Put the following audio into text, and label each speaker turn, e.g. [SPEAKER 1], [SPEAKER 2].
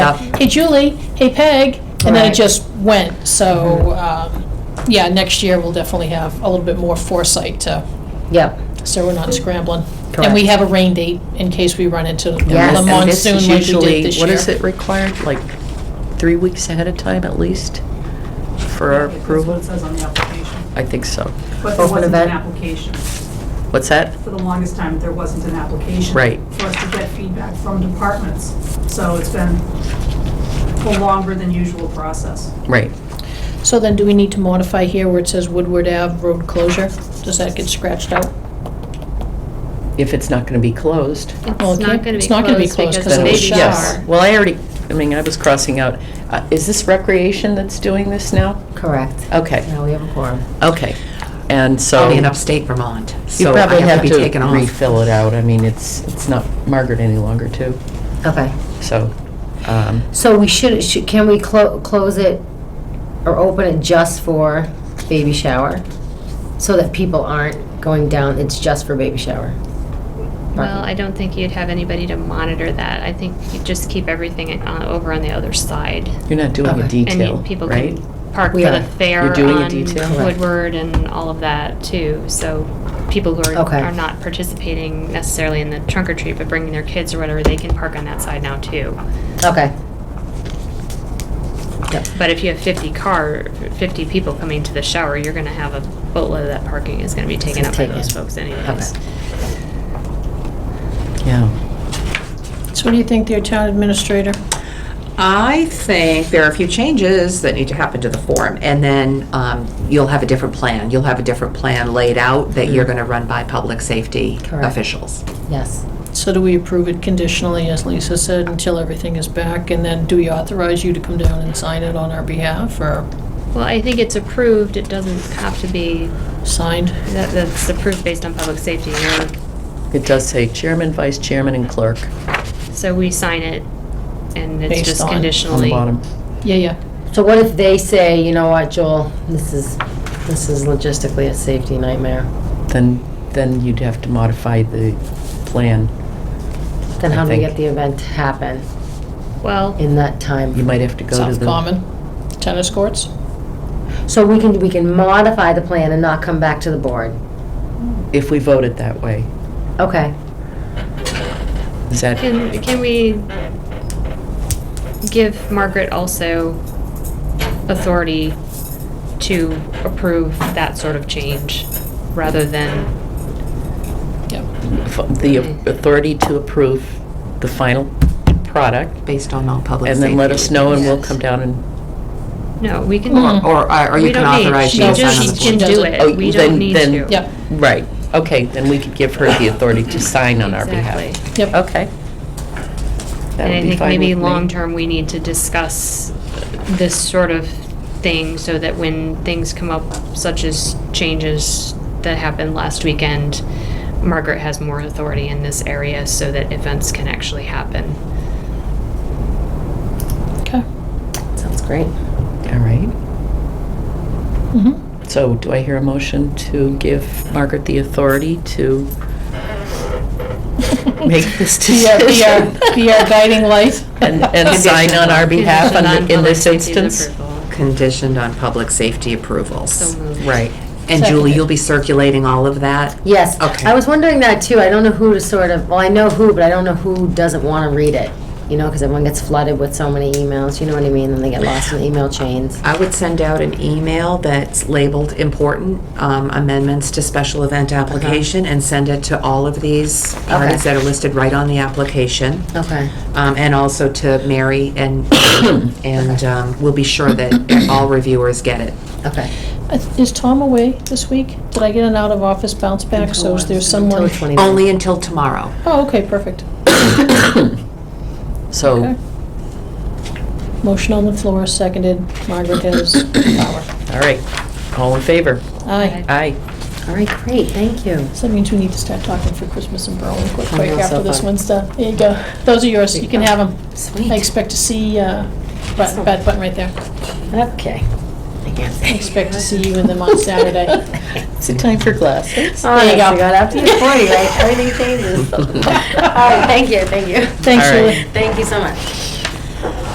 [SPEAKER 1] uh, hey Julie, hey Peg, and then it
[SPEAKER 2] Right. Mm-hmm.
[SPEAKER 1] just went. So, um, yeah, next year we'll definitely have a little bit more foresight to,
[SPEAKER 2] Yep.
[SPEAKER 1] so we're not scrambling. And
[SPEAKER 2] Correct.
[SPEAKER 1] we have a rain date in case we run into
[SPEAKER 2] Yes,
[SPEAKER 1] the
[SPEAKER 2] and
[SPEAKER 3] And this
[SPEAKER 1] monsoon
[SPEAKER 3] is
[SPEAKER 1] like we
[SPEAKER 3] usually,
[SPEAKER 1] did this year.
[SPEAKER 3] what is it required, like, three weeks ahead of time at least for our approval?
[SPEAKER 4] That's what it says on the application.
[SPEAKER 3] I think so.
[SPEAKER 4] But there
[SPEAKER 2] Open
[SPEAKER 4] wasn't an
[SPEAKER 2] event.
[SPEAKER 4] application.
[SPEAKER 3] What's that?
[SPEAKER 4] For the longest time, there wasn't an application.
[SPEAKER 3] Right.
[SPEAKER 4] For us to get feedback from departments. So it's been a longer than usual process.
[SPEAKER 3] Right.
[SPEAKER 1] So then do we need to modify here where it says Woodward Ave road closure? Does that get scratched out?
[SPEAKER 3] If it's not going to be closed.
[SPEAKER 1] Well, it can't-
[SPEAKER 5] It's not gonna be
[SPEAKER 1] it's not gonna be
[SPEAKER 5] closed
[SPEAKER 1] closed
[SPEAKER 5] because
[SPEAKER 1] 'cause
[SPEAKER 3] then
[SPEAKER 5] the
[SPEAKER 1] it was
[SPEAKER 3] we-
[SPEAKER 1] shut.
[SPEAKER 5] babies
[SPEAKER 3] yes.
[SPEAKER 5] are.
[SPEAKER 3] Well, I already, I mean, I was crossing out, uh, is this recreation that's doing this now?
[SPEAKER 2] Correct.
[SPEAKER 3] Okay.
[SPEAKER 2] Now we have a quorum.
[SPEAKER 3] Okay. And so.
[SPEAKER 6] I'll be in upstate Vermont,
[SPEAKER 3] You
[SPEAKER 6] so I
[SPEAKER 3] probably
[SPEAKER 6] have
[SPEAKER 3] have
[SPEAKER 6] to be taken
[SPEAKER 3] to
[SPEAKER 6] off.
[SPEAKER 3] refill it out. I mean, it's, it's not Margaret any longer too,
[SPEAKER 2] Okay.
[SPEAKER 3] so. um,
[SPEAKER 2] So we should, should- can we clo- close it or open it just for baby shower? So that people aren't going down, it's just for baby shower?
[SPEAKER 5] Well, I don't think you'd have anybody to monitor that. I think you just keep everything uh, over on the other side.
[SPEAKER 3] You're not doing
[SPEAKER 2] Okay. And
[SPEAKER 3] a
[SPEAKER 5] And
[SPEAKER 3] detail,
[SPEAKER 5] you- people
[SPEAKER 3] right?
[SPEAKER 5] can park for
[SPEAKER 2] We
[SPEAKER 5] the
[SPEAKER 2] are.
[SPEAKER 5] fair
[SPEAKER 3] You're doing a
[SPEAKER 5] on
[SPEAKER 3] detail?
[SPEAKER 2] Correct.
[SPEAKER 5] Woodward and all of that too. So people who are,
[SPEAKER 2] Okay.
[SPEAKER 5] are not participating necessarily in the trunk or treat, but bringing their kids or whatever, they can park on that side now too.
[SPEAKER 2] Okay. Yep.
[SPEAKER 5] But if you have fifty car, fifty people coming to the shower, you're gonna have a boatload of that parking is gonna be taken up by
[SPEAKER 2] taken.
[SPEAKER 5] those folks anyways.
[SPEAKER 3] Yeah.
[SPEAKER 1] So what do you think, dear town administrator?
[SPEAKER 6] I think there are a few changes that need to happen to the form, and then um, you'll have a different plan. You'll have a different plan laid out that
[SPEAKER 3] Mm-hmm.
[SPEAKER 6] you're going to run by public safety
[SPEAKER 2] Correct.
[SPEAKER 6] officials.
[SPEAKER 2] Yes.
[SPEAKER 1] So do we approve it conditionally, as Lisa said, until everything is back? And then do we authorize you to come down and sign it on our behalf or
[SPEAKER 5] Well, I think it's approved. It doesn't have to be,
[SPEAKER 1] signed?
[SPEAKER 5] that, that's approved based on public safety. You're
[SPEAKER 3] It does say chairman, vice chairman, and clerk
[SPEAKER 5] So we sign it, and it's
[SPEAKER 1] Based
[SPEAKER 5] just
[SPEAKER 1] on- on the
[SPEAKER 3] on the
[SPEAKER 5] conditionally.
[SPEAKER 3] bottom.
[SPEAKER 1] Yeah, yeah.
[SPEAKER 2] So what if they say, you know what, Joel, this is, this is logistically a safety nightmare?
[SPEAKER 3] Then, then you'd have to modify the plan.
[SPEAKER 2] Then
[SPEAKER 3] I
[SPEAKER 2] how do we
[SPEAKER 3] think-
[SPEAKER 2] get the event to happen
[SPEAKER 5] Well,
[SPEAKER 2] in that time?
[SPEAKER 3] You might have to go to the.
[SPEAKER 1] South Common, tennis courts?
[SPEAKER 2] So we can, we can modify the plan and not come back to the board?
[SPEAKER 3] If we vote it that way.
[SPEAKER 2] Okay.
[SPEAKER 3] Is that,
[SPEAKER 5] can, can we give Margaret also authority to approve that sort of change, rather than,
[SPEAKER 1] Yep.
[SPEAKER 3] f- the authority to approve the final product?
[SPEAKER 6] Based on all public
[SPEAKER 3] And
[SPEAKER 6] safety.
[SPEAKER 3] then let us know and we'll
[SPEAKER 2] Yes.
[SPEAKER 3] come down and.
[SPEAKER 5] no, we can.
[SPEAKER 6] Or, or- or
[SPEAKER 5] We
[SPEAKER 6] you can
[SPEAKER 5] don't need-
[SPEAKER 6] authorize
[SPEAKER 5] She
[SPEAKER 6] you to
[SPEAKER 1] just-
[SPEAKER 6] sign on the
[SPEAKER 5] just can
[SPEAKER 6] form.
[SPEAKER 1] form.
[SPEAKER 5] do
[SPEAKER 3] Oh,
[SPEAKER 5] it. We
[SPEAKER 3] then-
[SPEAKER 5] don't need
[SPEAKER 3] then-
[SPEAKER 5] to.
[SPEAKER 1] Yep,
[SPEAKER 3] Right, okay, then we could give her the authority to sign on our behalf.
[SPEAKER 5] Exactly.
[SPEAKER 1] yep.
[SPEAKER 3] Okay. That
[SPEAKER 5] And
[SPEAKER 3] would
[SPEAKER 5] I
[SPEAKER 3] be
[SPEAKER 5] think
[SPEAKER 3] fine
[SPEAKER 5] maybe
[SPEAKER 3] with me.
[SPEAKER 5] long-term, we need to discuss this sort of thing so that when things come up, such as changes that happened last weekend, Margaret has more authority in this area so that events can actually happen.
[SPEAKER 1] Okay.
[SPEAKER 2] Sounds great.
[SPEAKER 3] All right,
[SPEAKER 1] Mhm.
[SPEAKER 3] so do I hear a motion to give Margaret the authority to make this
[SPEAKER 1] Be our- be our,
[SPEAKER 3] decision?
[SPEAKER 1] be our guiding light.
[SPEAKER 3] And, and sign on our behalf on the- in this
[SPEAKER 5] Condition on public safety's
[SPEAKER 3] instance?
[SPEAKER 5] approval.
[SPEAKER 6] Conditioned on public safety approvals.
[SPEAKER 5] So moved.
[SPEAKER 3] Right,
[SPEAKER 6] And Julie,
[SPEAKER 1] Seconded.
[SPEAKER 6] you'll be circulating all of that?
[SPEAKER 2] Yes.
[SPEAKER 6] Okay.
[SPEAKER 2] I was wondering that too. I don't know who to sort of, well, I know who, but I don't know who doesn't want to read it. You know, because everyone gets flooded with so many emails, you know what I mean? And they get lost in the email chains.
[SPEAKER 6] I would send out an email that's labeled important um, amendments to special event application and send it to all of these parties that are listed right on the application.
[SPEAKER 2] Okay.
[SPEAKER 6] Um, And also to Mary and, and um, we'll be sure that all reviewers get it.
[SPEAKER 2] Okay.
[SPEAKER 1] Uh, Is Tom away this week? Did I get an out-of-office bounce back? So is there
[SPEAKER 2] Till
[SPEAKER 1] someone?
[SPEAKER 2] the 29th.
[SPEAKER 6] Only until tomorrow.
[SPEAKER 1] Oh, okay, perfect.
[SPEAKER 3] so, Oh.
[SPEAKER 1] Okay. Motion on the floor, seconded. Margaret has power.
[SPEAKER 3] all right, all in favor?
[SPEAKER 1] Aye.
[SPEAKER 3] Aye.
[SPEAKER 2] All right, great. Thank you.
[SPEAKER 1] So that means we need to start talking for Christmas and Berlin quick,
[SPEAKER 2] I
[SPEAKER 1] quick
[SPEAKER 2] know, so
[SPEAKER 1] after this
[SPEAKER 2] fun.
[SPEAKER 1] one's done. There you go. Those are yours. You can have them. I
[SPEAKER 2] Sweet.
[SPEAKER 1] expect to see, uh, button, bad button right there.
[SPEAKER 2] Okay. I guess.
[SPEAKER 1] I expect to see you in them on Saturday.
[SPEAKER 3] Is it time for glasses?
[SPEAKER 2] Oh, there you
[SPEAKER 1] go.
[SPEAKER 2] go. After you're 40, right? Everything changes. All right, thank you, thank you.
[SPEAKER 1] Thanks,
[SPEAKER 3] All right.
[SPEAKER 1] Julie.
[SPEAKER 2] Thank you so much.